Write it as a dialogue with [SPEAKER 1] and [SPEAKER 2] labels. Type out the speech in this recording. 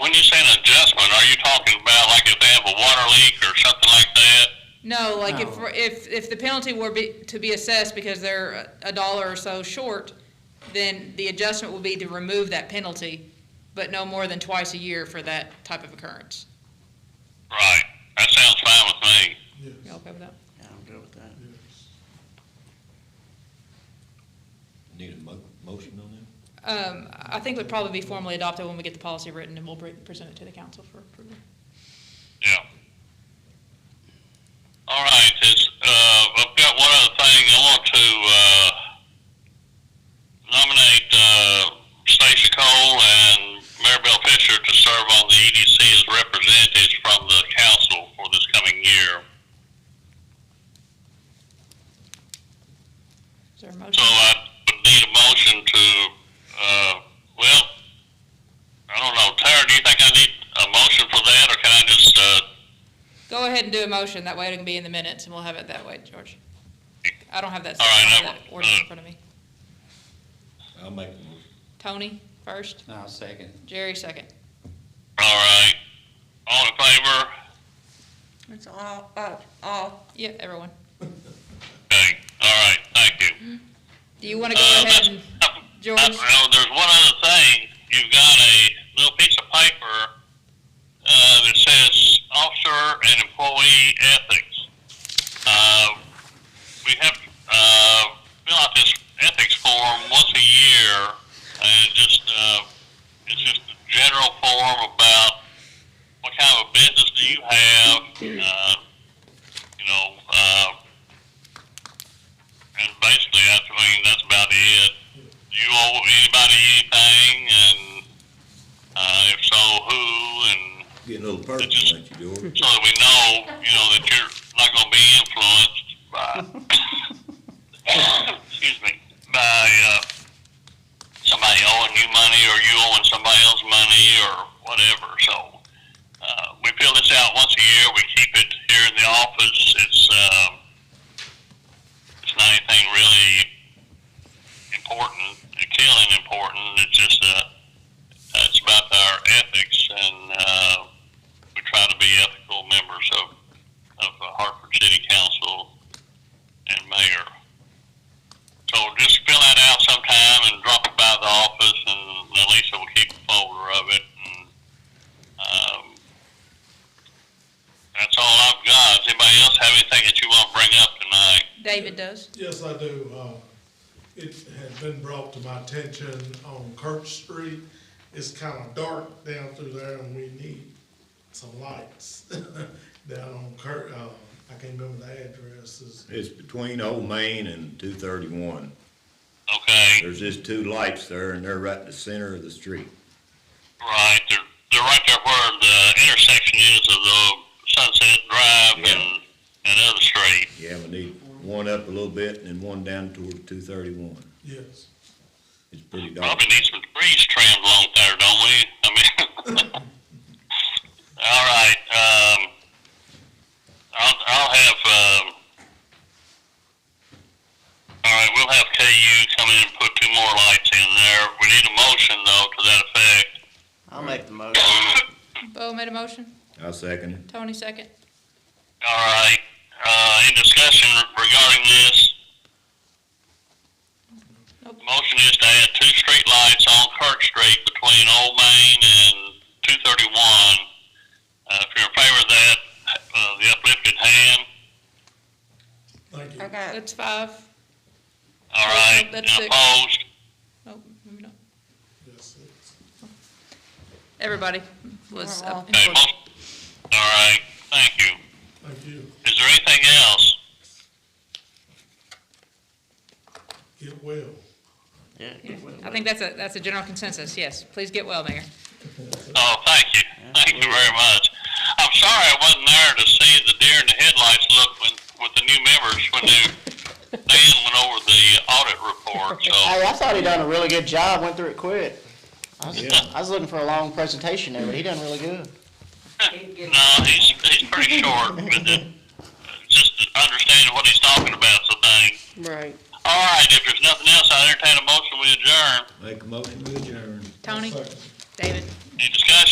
[SPEAKER 1] When you say an adjustment, are you talking about like if they have a water leak or something like that?
[SPEAKER 2] No, like if,
[SPEAKER 3] No.
[SPEAKER 2] if, if the penalty were be, to be assessed because they're a dollar or so short, then the adjustment would be to remove that penalty, but no more than twice a year for that type of occurrence.
[SPEAKER 1] Right. That sounds fine with me.
[SPEAKER 2] You okay with that?
[SPEAKER 3] I'm good with that.
[SPEAKER 4] Need a mo- motion on that?
[SPEAKER 2] Um, I think would probably be formally adopted when we get the policy written and we'll pre- present it to the council for approval.
[SPEAKER 1] Yeah. All right. It's, uh, I've got one other thing. I want to uh, nominate uh, Stacia Cole and Maribel Fisher to serve on the EDC as representatives from the council for this coming year.
[SPEAKER 2] Is there a
[SPEAKER 1] So
[SPEAKER 2] motion?
[SPEAKER 1] I would need a motion to, uh, well, I don't know, Tara, do you think I need a motion for that, or can I just, uh,
[SPEAKER 2] Go ahead and do a motion, that way it can be in the minutes and we'll have it that way, George. I don't have that,
[SPEAKER 1] All right, uh,
[SPEAKER 2] I don't
[SPEAKER 1] now-
[SPEAKER 2] have that order in front of me.
[SPEAKER 4] I'll make the motion.
[SPEAKER 2] Tony first,
[SPEAKER 3] I'll second.
[SPEAKER 2] Jerry second.
[SPEAKER 1] all right, all in favor?
[SPEAKER 5] It's all, uh, all,
[SPEAKER 2] Yeah, everyone.
[SPEAKER 1] Okay, all right, thank you.
[SPEAKER 2] Do you want to
[SPEAKER 1] Uh,
[SPEAKER 2] go ahead and,
[SPEAKER 1] that's-
[SPEAKER 2] George?
[SPEAKER 1] that's- Oh, there's one other thing, you've got a little piece of paper, uh, that says officer and employee ethics. Uh, we have to uh, fill out this ethics form once a year, and just uh, it's just a general form about what kind of a business do you have, uh, you know, uh, and basically, I mean that's about it. Do you owe anybody anything, and uh, if so, who, and
[SPEAKER 4] Get a little personal, ain't you, George?
[SPEAKER 1] so that we know, you know, that you're not going to be influenced by, excuse me, by uh, somebody owing you money or you owing somebody else money or whatever. So uh, we fill this out once a year. We keep it here in the office. It's um, it's not anything really important, killing important. It's just uh, it's about our ethics and. Uh, we try to be ethical members of, of the Hartford City Council and mayor. So just fill that out sometime and drop it by the office and then Lisa will keep a folder of it and, um, that's all I've got. Does anybody else have anything that you want to bring up tonight?
[SPEAKER 2] David does.
[SPEAKER 6] Yes, I do. Uh, It had been brought to my attention on Kirk Street. It's kind of dark down through there and we need some lights down on Kirk. Uh, I can't remember the addresses.
[SPEAKER 4] It's between Old Main and two thirty-one.
[SPEAKER 1] Okay,
[SPEAKER 4] There's just two lights there and they're right in the center of the street.
[SPEAKER 1] right, they're, they're right there where the intersection is of the Sunset Drive
[SPEAKER 4] Yeah.
[SPEAKER 1] and, and other street.
[SPEAKER 4] Yeah, we need one up a little bit and then one down toward two thirty-one.
[SPEAKER 6] Yes.
[SPEAKER 4] It's pretty dark.
[SPEAKER 1] Probably need some trees trimmed along there, don't we? I mean, all right. Um, I'll, I'll have. Um, all right, we'll have KU come in and put two more lights in there. We need a motion though to that effect.
[SPEAKER 3] I'll make the motion.
[SPEAKER 2] Bo made a motion,
[SPEAKER 4] I second it.
[SPEAKER 2] Tony second.
[SPEAKER 1] All right. Uh, any discussion regarding this?
[SPEAKER 2] Nope.
[SPEAKER 1] Motion is to add two street lights on Kirk Street between Old Main and two thirty-one. Uh, if you're in favor of that, uh, the uplifted hand.
[SPEAKER 6] Thank you.
[SPEAKER 5] okay.
[SPEAKER 2] That's five.
[SPEAKER 1] All right.
[SPEAKER 2] That's
[SPEAKER 1] And
[SPEAKER 2] six.
[SPEAKER 1] Opposed?
[SPEAKER 2] Nope, Oh, maybe not.
[SPEAKER 6] Yes, it's-
[SPEAKER 2] Everybody was up. in
[SPEAKER 1] Okay,
[SPEAKER 2] favor.
[SPEAKER 1] most, all right. Thank you.
[SPEAKER 6] Thank you.
[SPEAKER 1] Is there anything else?
[SPEAKER 6] Get well.
[SPEAKER 3] Yeah,
[SPEAKER 2] Yeah,
[SPEAKER 3] it will.
[SPEAKER 2] I think that's a, that's a general consensus, yes. Please get well, Mayor.
[SPEAKER 1] Oh, thank you. Thank you very much. I'm sorry I wasn't there to see the deer in the headlights look when, with the new members when they, Dan went over the audit report, so.
[SPEAKER 7] Hey, I thought he done a really good job, went through it quick. I was,
[SPEAKER 4] Yeah.
[SPEAKER 7] I was looking for a long presentation there, but he done really good.
[SPEAKER 1] No, he's, he's pretty short, but uh, just understanding what he's talking about, so thing.
[SPEAKER 5] Right.
[SPEAKER 1] All right, if there's nothing else, I entertain a motion, we adjourn.
[SPEAKER 4] Make a motion, we adjourn.
[SPEAKER 2] Tony,
[SPEAKER 6] Second.
[SPEAKER 2] David.
[SPEAKER 1] Any discussion?